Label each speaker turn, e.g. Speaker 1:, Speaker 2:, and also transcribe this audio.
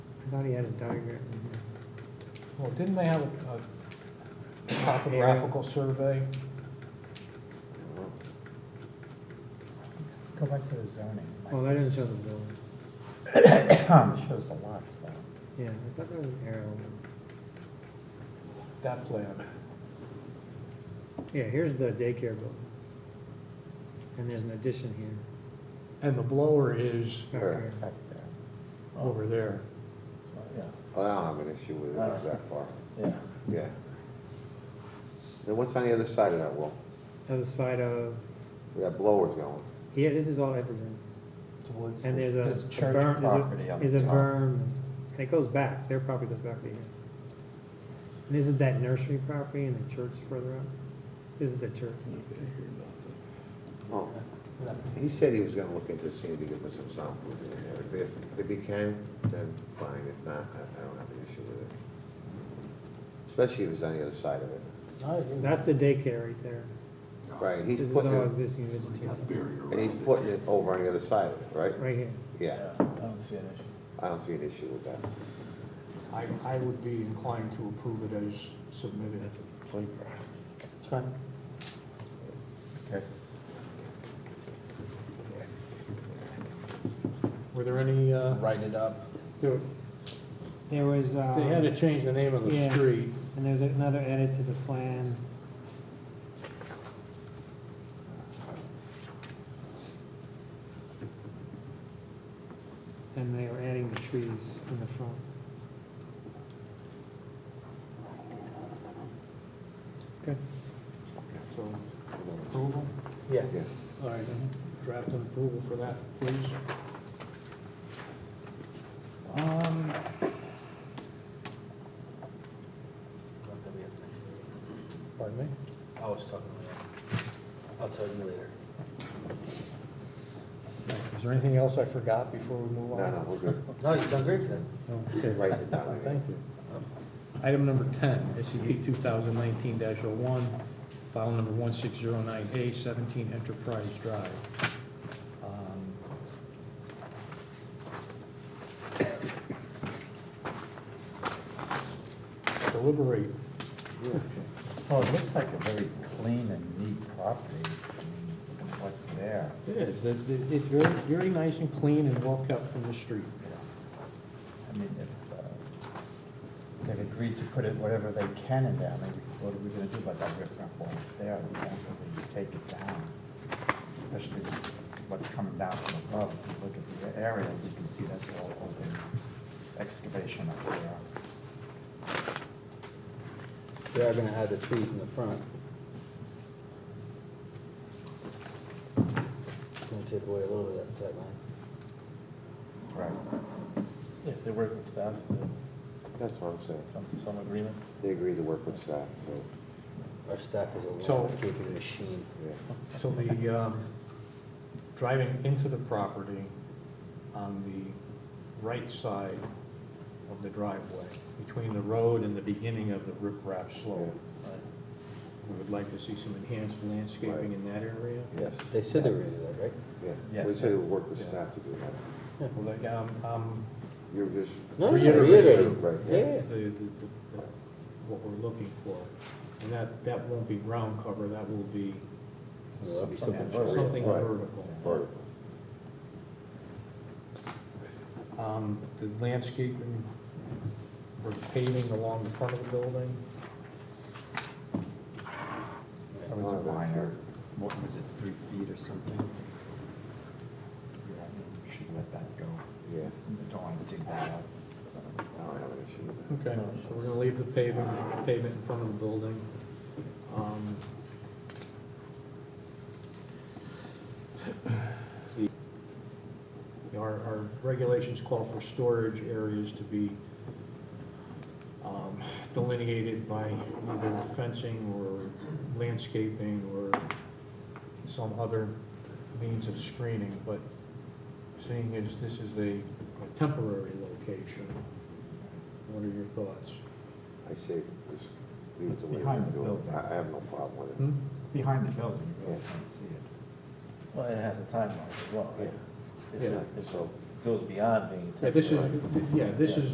Speaker 1: thought he had a diagram in here.
Speaker 2: Well, didn't they have a a topographical survey?
Speaker 3: Go back to the zoning. Mike.
Speaker 1: Well, that doesn't show the building.
Speaker 3: It shows the lots though.
Speaker 1: Yeah, I thought there was an arrow.
Speaker 2: That plan.
Speaker 1: Yeah, here's the daycare building. And there's an addition here.
Speaker 2: And the blower is
Speaker 1: back
Speaker 4: Sure.
Speaker 1: here.
Speaker 3: Back there.
Speaker 2: over there.
Speaker 5: So, yeah,
Speaker 4: I don't have an issue with it, it's that far,
Speaker 5: yeah.
Speaker 4: yeah. And what's on the other side of that wall?
Speaker 1: Other side of,
Speaker 4: Where that blower's going?
Speaker 1: yeah, this is all evergreen. And there's a
Speaker 3: There's
Speaker 1: a
Speaker 3: church
Speaker 1: berm- there's a-
Speaker 3: property on the
Speaker 1: Is a
Speaker 3: top.
Speaker 1: berm, it goes back, their property goes back to here. And this is that nursery property and the church further up. This is the church.
Speaker 4: Oh, he said he was gonna look into seeing if he could put some soundproofing in there. If, if he can, then fine, if not, I, I don't have an issue with it. Especially if it's on the other side of it.
Speaker 5: I agree.
Speaker 1: That's the daycare right there.
Speaker 4: Right,
Speaker 1: This
Speaker 4: he's
Speaker 1: is
Speaker 4: putting
Speaker 1: all
Speaker 4: it,
Speaker 1: existing vegetation,
Speaker 4: and he's putting it over on the other side of it, right?
Speaker 1: right here.
Speaker 4: Yeah,
Speaker 5: Yeah, I don't see an issue.
Speaker 4: I don't see an issue with that.
Speaker 2: I, I would be inclined to approve it as submitted.
Speaker 3: It's fine. Okay.
Speaker 2: Were there any, uh,
Speaker 5: Write it up.
Speaker 2: there-
Speaker 1: There was, uh.
Speaker 2: they had to change the name of the
Speaker 1: Yeah.
Speaker 2: street.
Speaker 1: And there's another edit to the plan. And they are adding the trees in the front. Good.
Speaker 2: So approval?
Speaker 3: Yeah.
Speaker 4: Yeah.
Speaker 2: All right, draft an approval for that, please.
Speaker 3: Um,
Speaker 2: Pardon me?
Speaker 5: I was talking later. I'll tell you later.
Speaker 2: Is there anything else I forgot before we move on?
Speaker 4: No, no, we're good.
Speaker 5: No, you've done great today.
Speaker 2: Okay.
Speaker 4: Write it down.
Speaker 2: Thank you. Item number 10, SCP 2019-01, file number 1609A, 17 Enterprise Drive. Um, Deliberate.
Speaker 3: Well, it looks like a very clean and neat property, I mean, what's there.
Speaker 2: It is, It- it- it's very, very nice and clean and well kept from the street.
Speaker 3: I mean, if uh, they've agreed to put it whatever they can in there, I mean, what are we gonna do about that riprap wall that's there? We can't really take it down, especially what's coming down from above. If you look at the areas, you can see that's all open excavation up there.
Speaker 5: They are gonna add the trees in the front. Gonna take away a little bit of that sight line.
Speaker 3: Right.
Speaker 6: If they work with staff to
Speaker 4: That's what I'm saying.
Speaker 6: come to some agreement.
Speaker 4: They agreed to work with staff, so,
Speaker 5: Our staff is a
Speaker 2: So-
Speaker 5: landscaping machine.
Speaker 4: yeah.
Speaker 2: So the, um, driving into the property on the right side of the driveway, between the road and the beginning of the riprap slope, we would like to see some enhanced landscaping in that area.
Speaker 4: Yes,
Speaker 5: They said they were gonna do that, right?
Speaker 4: yeah.
Speaker 3: Yes,
Speaker 4: We said it
Speaker 3: yes.
Speaker 4: would work with staff to do that.
Speaker 2: Well, like, um, um,
Speaker 4: You're just.
Speaker 5: No, no, reiterating.
Speaker 4: Right,
Speaker 2: the,
Speaker 4: yeah.
Speaker 2: the, the- the- what we're looking for. And that, that won't be ground cover, that will be
Speaker 5: Well, that'd be
Speaker 3: Something
Speaker 5: something
Speaker 3: vertical.
Speaker 5: vertical.
Speaker 2: something
Speaker 4: Right.
Speaker 2: vertical.
Speaker 4: Vertical.
Speaker 2: Um, The landscaping, we're paving along the front of the building.
Speaker 3: Oh, That was a minor, what was it, three feet or something? Yeah, I mean, we should let that go.
Speaker 4: Yeah.
Speaker 3: Don't wanna dig that up.
Speaker 4: I don't have an issue with that.
Speaker 2: Okay, so we're gonna leave the paving, pavement in front of the building. Um, the- Our, our regulations call for storage areas to be um, delineated by either fencing or landscaping or some other means of screening, but seeing as this is a a temporary location, what are your thoughts?
Speaker 4: I say, just leave it
Speaker 3: It's
Speaker 4: the way
Speaker 3: behind
Speaker 4: they're
Speaker 3: the
Speaker 4: doing it.
Speaker 3: building.
Speaker 4: I I have no problem with it.
Speaker 2: Hmm?
Speaker 3: Behind the building, you really can't see it.
Speaker 6: Well, it has a timeline as well, right?
Speaker 4: Yeah.
Speaker 6: If it-
Speaker 4: Yeah,
Speaker 6: if
Speaker 4: so-
Speaker 6: it goes beyond being.
Speaker 2: Yeah, this is, yeah, this is